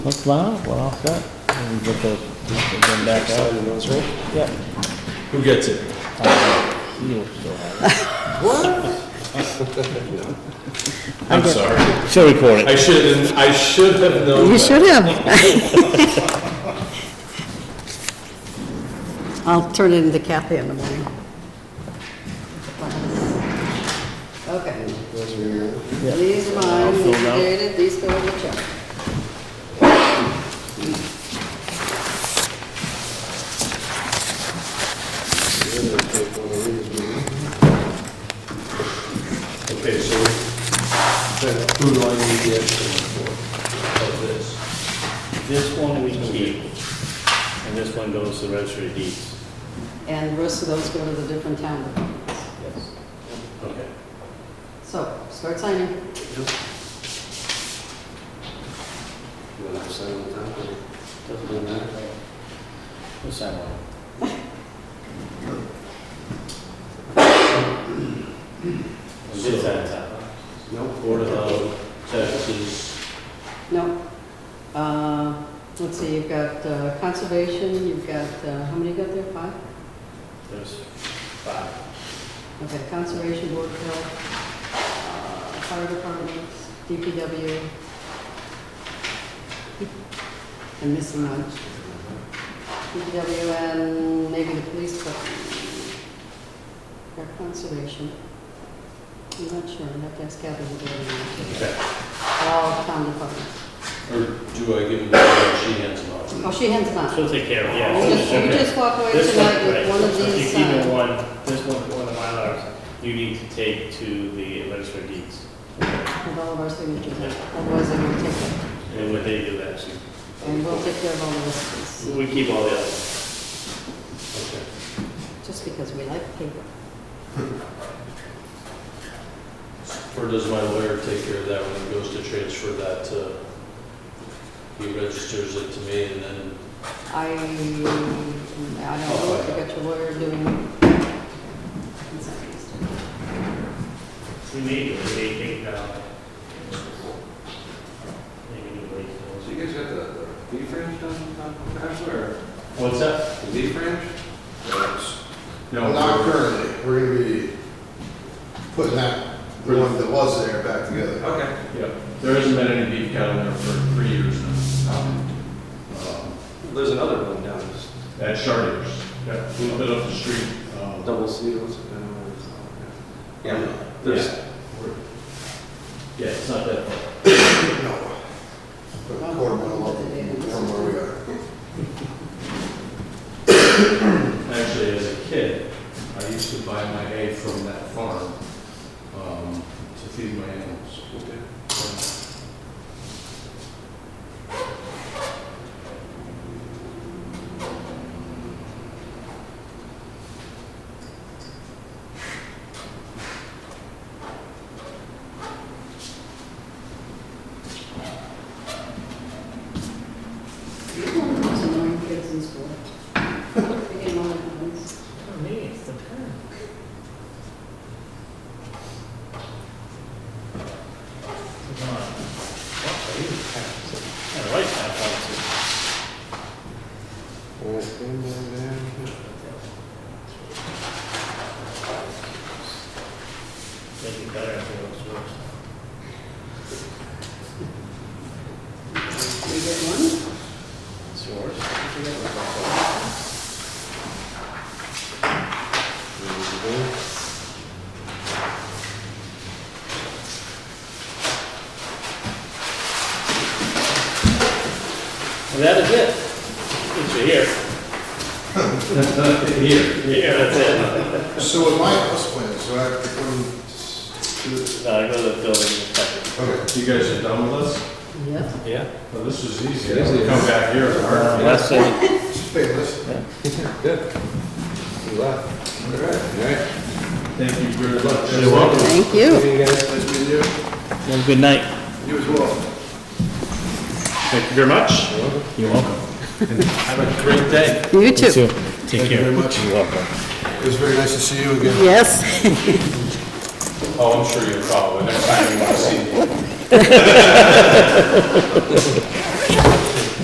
That's fine, we're all set. We can get those, we can get back out. Signing those, right? Yep. Who gets it? You'll still have I'm sorry. it. She'll record I it. should, I should have known. You that. should have. I'll turn it into Kathy in the morning. Okay, Those are your, these are mine, these are dated, these go in the check. you're gonna take one of these, maybe. Okay, so then who do I need the extra one for? Of this? This one we keep, and this one goes to the registry of deeds. And the rest of those go to the different town departments. Okay. So, start signing. You wanna sign on top of it? Doesn't matter. What's that one? This So- that. Nope. Board of Health, taxes, No. Uh, Let's see, you've got uh, conservation, you've got, uh, how many you got there, five? there's five. Okay, Conservation Board of Health, uh, Fire Department, DPW. I'm missing one. DPW and maybe the police department. Or Conservation. I'm not sure, I'd have to ask Kathy what they're Okay. All town departments. Or do I give them, to her and she hands them off? Oh, she hands them out. She'll take care of it, yeah. You just- you just walk away This one, tonight with right, one of so these uh, If you keep signed. it one, this one, one of my ours, you need to take to the registry of deeds. With all of our signatures, on it. otherwise I'm gonna take it, And what they do actually, and we'll take care of all the rest of this, we keep all the others. Okay. just because we like paper. Or does my lawyer take care of that when it goes to transfer that to, he registers it to me and then, I, I don't know, if you got your lawyer doing. We may, do it, they take now. Maybe we wait So you guys got the the beef ranch done, on Bachelor, or till- What's that? the beef ranch? Well, Not currently, we're gonna be putting that, the one that was there back together. Okay. yeah, there hasn't been any beef cattle there for three years now. Um, There's another one down, it's At Charters, yeah, a little bit up the street. um, double seals. and, uh, Yeah, there's, we're- Yeah, it's not that far. No. But quarter mile up from where we are. Actually, as a kid, I used to buy my hay from that farm um, to feed my animals. You're one of those annoying kids in school. I get all the ones. Come on. Yeah, the right side, obviously. All right, stand down there. Make it better if it looks worse. You get one? It's yours. And that is it. Since you're here. Here. Here, that's it. So at my house plan, so I have to come to this. Now I go to the building inspector. Okay. You guys are done with us? Yep. Yeah. Well, this was easy. It is easy. Come back here. Unless they, Just pay this. good. You left. All right. Thank you very much. You're welcome. Thank you. See you guys. Nice meeting you. have a good night. You as well. Thank you very much. You're welcome. Have a great day. You too. Take Thank you care. very much. You're welcome. It was very nice to see you again. Yes. Oh, I'm sure you'll probably, next time you want to see me.